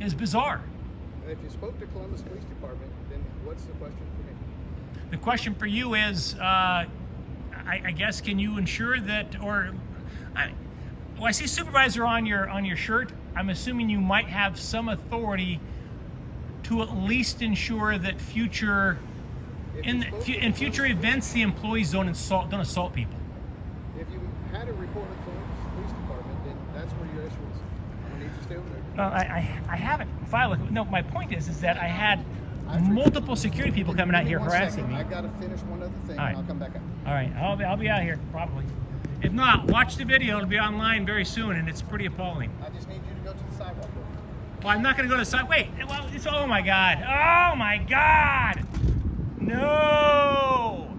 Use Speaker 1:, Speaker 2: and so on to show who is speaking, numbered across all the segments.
Speaker 1: is bizarre.
Speaker 2: And if you spoke to Columbus Police Department, then what's the question for me?
Speaker 1: The question for you is, uh, I, I guess, can you ensure that, or, I, well, I see supervisor on your, on your shirt. I'm assuming you might have some authority to at least ensure that future,
Speaker 2: If
Speaker 1: in,
Speaker 2: you
Speaker 1: the
Speaker 2: spoke
Speaker 1: fu-
Speaker 2: to
Speaker 1: in
Speaker 2: Columbus
Speaker 1: future
Speaker 2: Police-
Speaker 1: events, the employees don't assault, don't assault people.
Speaker 2: If you had a report of Columbus Police Department, then that's where your issue is. I'm gonna need you to stay over there.
Speaker 1: No, I, I, I haven't filed, a- no, my point is, is that I had
Speaker 2: I appreciate-
Speaker 1: multiple security people coming out
Speaker 2: Give me
Speaker 1: here
Speaker 2: one
Speaker 1: harassing
Speaker 2: second.
Speaker 1: me.
Speaker 2: I gotta finish one other thing,
Speaker 1: All right.
Speaker 2: and I'll come back up.
Speaker 1: All right, I'll be, I'll be out here probably. If not, watch the video. It'll be online very soon, and it's pretty appalling.
Speaker 2: I just need you to go to the sidewalk.
Speaker 1: Well, I'm not gonna go to the side. Wait, well, it's oh my god, oh my god, no.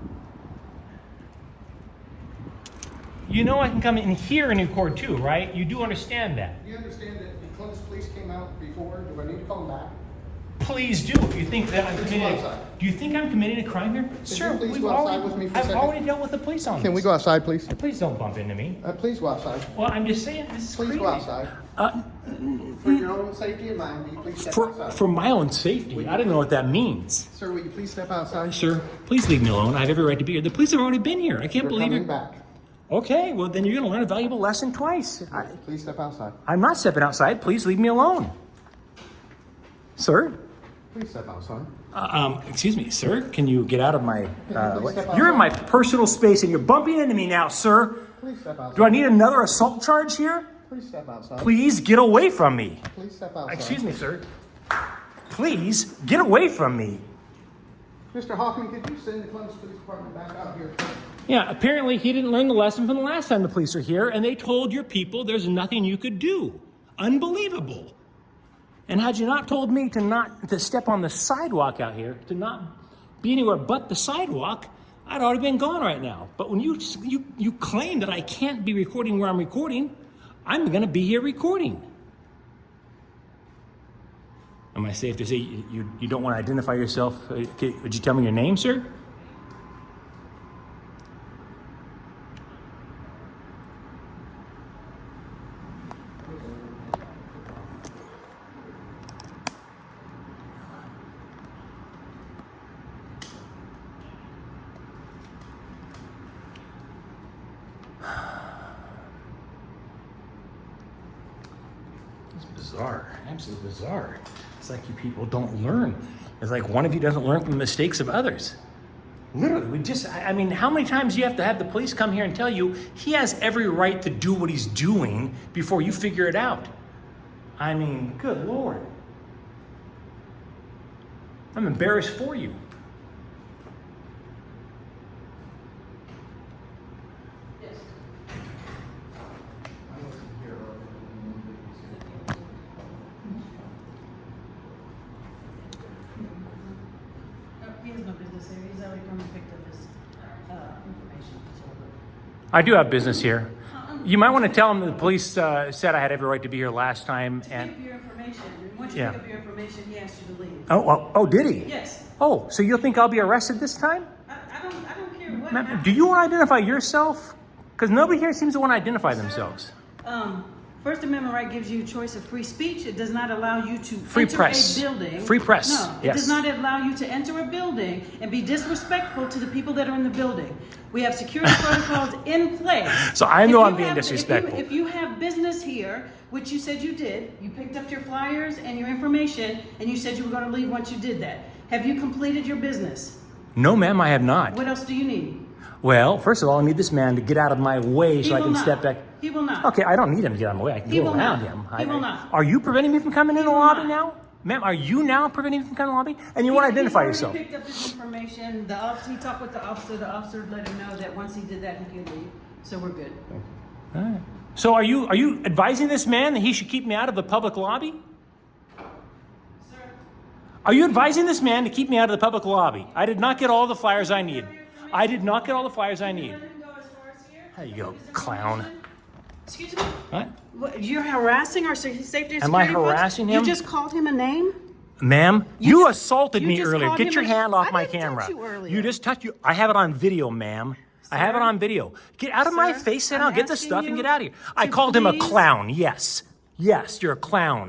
Speaker 1: You know I can come in here and record too, right? You do understand that.
Speaker 2: You understand that the Columbus Police came out before, do I need to call them back?
Speaker 1: Please do. If you think that I'm
Speaker 2: Please
Speaker 1: committing,
Speaker 2: go outside.
Speaker 1: do you think I'm committing a crime here, sir?
Speaker 2: please
Speaker 1: We've
Speaker 2: go outside
Speaker 1: already,
Speaker 2: with me for a
Speaker 1: I've
Speaker 2: second?
Speaker 1: already dealt with the police on this.
Speaker 2: Can we go outside, please?
Speaker 1: Please don't bump into me.
Speaker 2: Uh, please go outside.
Speaker 1: Well, I'm just saying this is
Speaker 2: Please
Speaker 1: crazy.
Speaker 2: go outside.
Speaker 1: Uh,
Speaker 2: For your own safety and mine, will you please step
Speaker 1: For,
Speaker 2: outside?
Speaker 1: for my own safety, I don't know what that means.
Speaker 2: Sir, will you please step outside?
Speaker 1: Sir, please leave me alone. I have every right to be here. The police have already been here. I can't
Speaker 2: You're
Speaker 1: believe
Speaker 2: coming
Speaker 1: it.
Speaker 2: back.
Speaker 1: Okay, well, then you're going to learn a valuable lesson twice. I,
Speaker 2: Please step outside.
Speaker 1: I'm not stepping outside. Please leave me alone. Sir?
Speaker 2: Please step outside.
Speaker 1: Uh, um, excuse me, sir. Can you get out of my. Uh,
Speaker 2: Please step
Speaker 1: what- you're in my personal space and you're bumping into me now, sir.
Speaker 2: Please step outside.
Speaker 1: Do I need another assault charge here?
Speaker 2: Please step outside.
Speaker 1: Please get away from me.
Speaker 2: Please step outside.
Speaker 1: Excuse me, sir. Please get away from me.
Speaker 2: Mr. Hoffman, could you send the Columbus Police Department back out here?
Speaker 1: Yeah, apparently he didn't learn the lesson from the last time the police were here, and they told your people there's nothing you could do. Unbelievable. And had you not told me to not to step on the sidewalk out here, to not be anywhere but the sidewalk, I'd already been gone right now. But when you you you claim that I can't be recording where I'm recording, I'm gonna be here recording. Am I safe to say you, you, you don't want to identify yourself? Uh, c- Would you tell me your name, sir? It's bizarre, absolutely bizarre. It's like you people don't learn. It's like one of you doesn't learn from the mistakes of others. Literally, we just, I I mean, how many times do you have to have the police come here and tell you he has every right to do what he's doing before you figure it out? I mean, good lord. I'm embarrassed for you.
Speaker 3: Uh, He has no business here, he's already come and picked up his, uh, information, so.
Speaker 1: I do have business here.
Speaker 3: Uh, um,
Speaker 1: You might want to tell him the police uh, said I had every right to be here last time
Speaker 3: Pick up your information, and once you
Speaker 1: Yeah.
Speaker 3: pick up your information, he asks you to leave.
Speaker 1: Oh, oh, oh, did he?
Speaker 3: Yes,
Speaker 1: Oh, so you think I'll be arrested this time?
Speaker 3: I, I don't, I don't care what
Speaker 1: Ma'am,
Speaker 3: happens.
Speaker 1: do you want to identify yourself? Because nobody here seems to want to identify themselves.
Speaker 3: Um, First Amendment right gives you a choice of free speech, it does not allow you to.
Speaker 1: Free
Speaker 3: enter
Speaker 1: press.
Speaker 3: A building.
Speaker 1: Free press,
Speaker 3: No, it
Speaker 1: yes.
Speaker 3: does not allow you to enter a building and be disrespectful to the people that are in the building. We have security protocols in place.
Speaker 1: So I
Speaker 3: If
Speaker 1: know
Speaker 3: you
Speaker 1: I'm being
Speaker 3: have- if you-
Speaker 1: disrespectful.
Speaker 3: If you have business here, which you said you did, you picked up your flyers and your information, and you said you were gonna leave once you did that. Have you completed your business?
Speaker 1: No, ma'am, I have not.
Speaker 3: What else do you need?
Speaker 1: Well, first of all, I need this man to get out of my way
Speaker 3: He
Speaker 1: so I
Speaker 3: will
Speaker 1: can
Speaker 3: not.
Speaker 1: step back.
Speaker 3: He will not.
Speaker 1: Okay, I don't need him to get out of my way. I can
Speaker 3: He
Speaker 1: go
Speaker 3: will
Speaker 1: around
Speaker 3: not.
Speaker 1: him.
Speaker 3: He
Speaker 1: I-
Speaker 3: will
Speaker 1: I-
Speaker 3: not.
Speaker 1: Are you preventing me from coming in the lobby
Speaker 3: not.
Speaker 1: now? Ma'am, are you now preventing me from coming in the lobby? And you want to
Speaker 3: He- he's
Speaker 1: identify
Speaker 3: already
Speaker 1: yourself?
Speaker 3: picked up his information. The officer, he talked with the officer. The officer let him know that once he did that, he could leave. So we're good.
Speaker 1: So are you are you advising this man that he should keep me out of the public lobby?
Speaker 3: Sir,
Speaker 1: Are you advising this man to keep me out of the public lobby? I did not get all the flyers I need. I did not get all the flyers I need.
Speaker 3: let him go as far as here.
Speaker 1: There you go,
Speaker 3: His information.
Speaker 1: clown.
Speaker 3: Excuse me.
Speaker 1: What?
Speaker 3: What, you're harassing our se- safety. and
Speaker 1: Am I
Speaker 3: security folks?
Speaker 1: harassing him?
Speaker 3: You just called him a name.
Speaker 1: Ma'am, you,
Speaker 3: You just-
Speaker 1: assaulted
Speaker 3: you
Speaker 1: me
Speaker 3: just
Speaker 1: earlier.
Speaker 3: called
Speaker 1: Get
Speaker 3: him
Speaker 1: your
Speaker 3: a-
Speaker 1: hand off
Speaker 3: I
Speaker 1: my
Speaker 3: didn't touch
Speaker 1: camera.
Speaker 3: you earlier.
Speaker 1: just touched you. I have it on video, ma'am. I have it
Speaker 3: Sir?
Speaker 1: on video. Get out of my
Speaker 3: Sir,
Speaker 1: face and
Speaker 3: I'm
Speaker 1: I'll get the
Speaker 3: asking
Speaker 1: stuff and
Speaker 3: you
Speaker 1: get out of here. I
Speaker 3: to
Speaker 1: called him a
Speaker 3: please-
Speaker 1: clown. Yes. Yes, you're a clown.